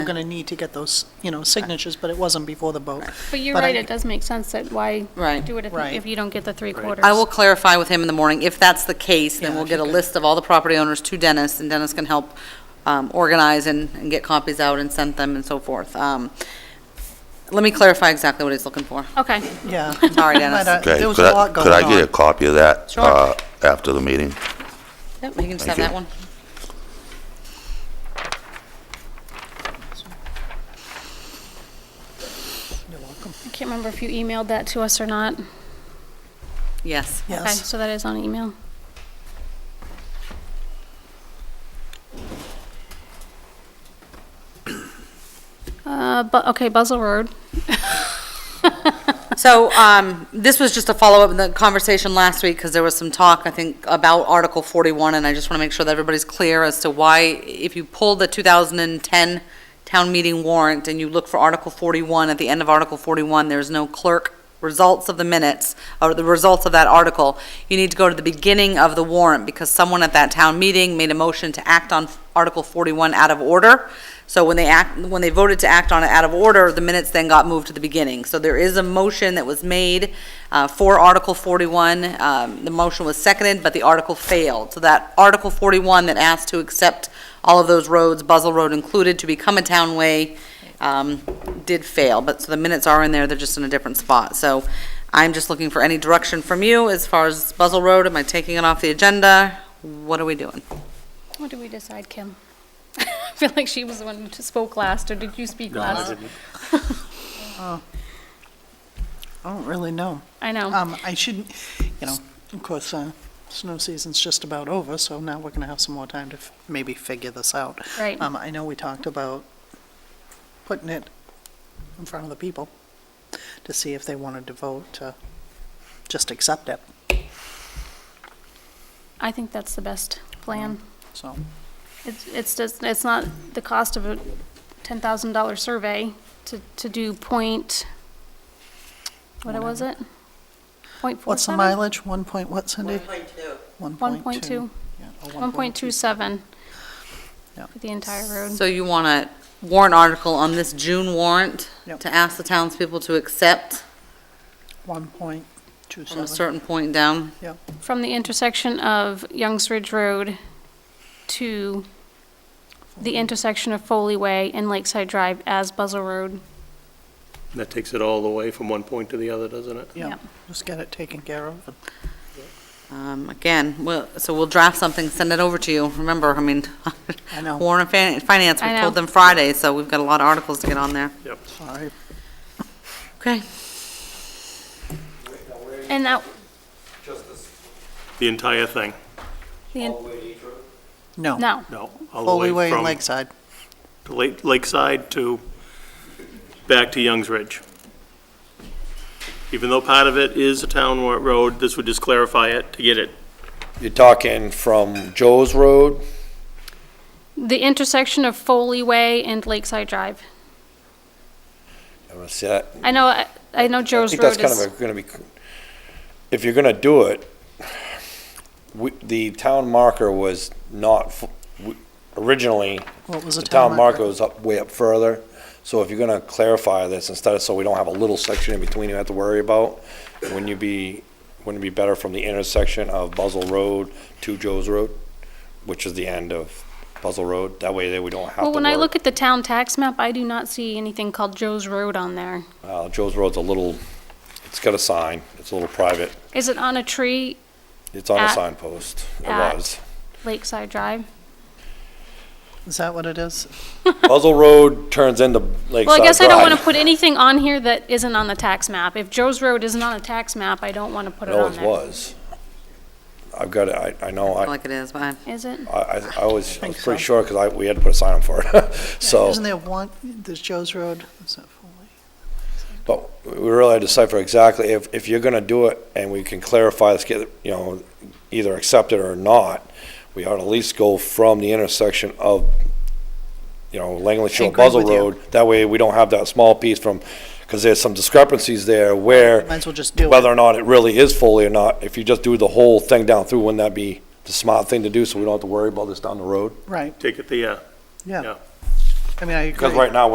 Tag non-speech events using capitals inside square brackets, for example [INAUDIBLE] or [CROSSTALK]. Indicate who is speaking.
Speaker 1: we're going to need to get those, you know, signatures, but it wasn't before the vote.
Speaker 2: But you're
Speaker 1: But I-
Speaker 2: right, it does make sense that why
Speaker 3: Right.
Speaker 2: do it if-
Speaker 1: Right.
Speaker 2: if you don't get the three quarters?
Speaker 3: I will clarify with him in the morning. If that's the case, then
Speaker 1: Yeah,
Speaker 3: we'll
Speaker 1: if
Speaker 3: get a
Speaker 1: you could.
Speaker 3: list of all the property owners to Dennis, and Dennis can help um, organize and and get copies out and send them and so forth. Um, Let me clarify exactly what he's looking for.
Speaker 2: Okay,
Speaker 1: Yeah. [LAUGHS]
Speaker 3: Sorry,
Speaker 1: But,
Speaker 3: Dennis.
Speaker 1: uh,
Speaker 4: Okay,
Speaker 1: There was
Speaker 4: could
Speaker 1: a
Speaker 4: I-
Speaker 1: lot going
Speaker 4: Could I get a
Speaker 1: on.
Speaker 4: copy of that
Speaker 3: Sure.
Speaker 4: uh, after the meeting?
Speaker 3: Yep, you can just have that
Speaker 4: Thank you.
Speaker 3: one.
Speaker 2: I can't remember if you emailed that to us or not.
Speaker 3: Yes.
Speaker 2: Okay,
Speaker 1: Yes.
Speaker 2: so that is on email. Uh, but, okay, Buzzell Road,
Speaker 3: So um, this was just a follow-up in the conversation last week, because there was some talk, I think, about Article 41, and I just want to make sure that everybody's clear as to why, if you pull the 2010 town meeting warrant and you look for Article 41, at the end of Article 41, there's no clerk results of the minutes, or the results of that article, you need to go to the beginning of the warrant, because someone at that town meeting made a motion to act on Article 41 out of order. So when they act, when they voted to act on it out of order, the minutes then got moved to the beginning. So there is a motion that was made uh, for Article 41. Um, The motion was seconded, but the article failed. So that Article 41 that asked to accept all of those roads, Buzzell Road included, to become a townway, um, did fail. But, so the minutes are in there, they're just in a different spot. So I'm just looking for any direction from you as far as Buzzell Road. Am I taking it off the agenda? What are we doing?
Speaker 2: what did we decide, Kim? [LAUGHS] I feel like she was the one who spoke last, or did you speak last?
Speaker 1: I don't really know.
Speaker 2: I know,
Speaker 1: Um, I shouldn't, you know, of course, uh, snow season's just about over, so now we're going to have some more time to f- maybe figure this out.
Speaker 2: right.
Speaker 1: Um, I know we talked about putting it in front of the people to see if they wanted to vote to just accept it,
Speaker 2: I think that's the best plan.
Speaker 1: so.
Speaker 2: It's, it's just, it's not the cost of a ten thousand dollar survey to, to do point, what was it? Point four
Speaker 1: What's the
Speaker 2: seven?
Speaker 1: mileage? One point, what, Cindy? One
Speaker 2: One point two,
Speaker 1: yeah, or
Speaker 2: one point two seven.
Speaker 1: Yeah.
Speaker 2: For the entire road.
Speaker 3: So you want a warrant article on this June warrant
Speaker 1: Yep.
Speaker 3: to ask the townspeople to accept
Speaker 1: One point two
Speaker 3: from a
Speaker 1: seven.
Speaker 3: certain point down?
Speaker 2: From the intersection of Youngs Ridge Road to the intersection of Foley Way and Lakeside Drive as Buzzell Road.
Speaker 5: That takes it all the way from one point to the other, doesn't it?
Speaker 1: Yeah,
Speaker 2: Yeah.
Speaker 1: just get it taken care of.
Speaker 3: Um, Again, we'll- so we'll draft something, send it over to you. Remember, I mean,
Speaker 1: I
Speaker 3: [LAUGHS]
Speaker 1: know.
Speaker 3: Warren and Finance, we
Speaker 2: I know.
Speaker 3: told them Friday, so we've got a lot of articles to get on there.
Speaker 5: Yep.
Speaker 1: Sorry.
Speaker 3: Okay.
Speaker 2: And that,
Speaker 6: Just this,
Speaker 5: The entire thing?
Speaker 2: the,
Speaker 6: all
Speaker 2: en-
Speaker 6: the way to East Road?
Speaker 1: No.
Speaker 2: no,
Speaker 5: No. all the
Speaker 1: Foley
Speaker 5: way
Speaker 1: Way and
Speaker 5: from
Speaker 1: Lakeside.
Speaker 5: Lake- Lakeside to, back to Youngs Ridge. Even though part of it is a town wa- road, this would just clarify it to get it.
Speaker 6: You're talking from Joe's Road,
Speaker 2: the intersection of Foley Way and Lakeside Drive.
Speaker 6: I'm gonna say that.
Speaker 2: I know, I- I know Joe's
Speaker 6: I
Speaker 2: Road
Speaker 6: think that's kind
Speaker 2: is,
Speaker 6: of gonna be, if you're gonna do it, we, the town marker was not, f- we- originally,
Speaker 1: What was
Speaker 6: the
Speaker 1: the
Speaker 6: town
Speaker 1: time?
Speaker 6: marker was up, way up further. So if you're gonna clarify this, instead of, so we don't have a little section in between you have to worry about, wouldn't you be, wouldn't it be better from the intersection of Buzzell Road to Joe's Road, which is the end of Buzzell Road? That way there we don't have to
Speaker 2: well,
Speaker 6: worry.
Speaker 2: when I look at the town tax map, I do not see anything called Joe's Road on there.
Speaker 6: Uh, Joe's Road's a little, it's got a sign, it's a little private,
Speaker 2: Is it on a tree,
Speaker 6: it's on a
Speaker 2: At-
Speaker 6: signpost, it
Speaker 2: at-
Speaker 6: was.
Speaker 2: Lakeside Drive?
Speaker 1: Is that what it is?
Speaker 6: Buzzell Road turns into Lakeside Drive.
Speaker 2: Well, I guess I don't want to put anything on here that isn't on the tax map. If Joe's Road isn't on a tax map, I don't want to put
Speaker 6: It
Speaker 2: it on
Speaker 6: always
Speaker 2: there.
Speaker 6: was. I've got it, I, I know,
Speaker 3: I
Speaker 6: I,
Speaker 3: like it is, but I-
Speaker 2: Is it?
Speaker 6: I, I I was, I
Speaker 1: think
Speaker 6: was pretty
Speaker 1: so.
Speaker 6: sure, because I, we had to put a sign up for it, [LAUGHS] so.
Speaker 1: Isn't there one, there's Joe's Road, is that Foley?
Speaker 6: But we really had to decipher exactly, if, if you're gonna do it, and we can clarify, let's get, you know, either accept it or not, we ought to at least go from the intersection of, you know, Langley Shore,
Speaker 1: agree
Speaker 6: Buzzell
Speaker 1: with you.
Speaker 6: Road. That way, we don't have that small piece from, because there's some discrepancies there where,
Speaker 1: Might as well just do it.
Speaker 6: whether or not it really is fully or not, if you just do the whole thing down through, wouldn't that be the smart thing to do, so we don't have to worry about this down the road?
Speaker 1: Right,
Speaker 5: Take it the, uh,
Speaker 1: yeah.
Speaker 5: Yeah.
Speaker 7: I mean, I agree.
Speaker 1: Because right now,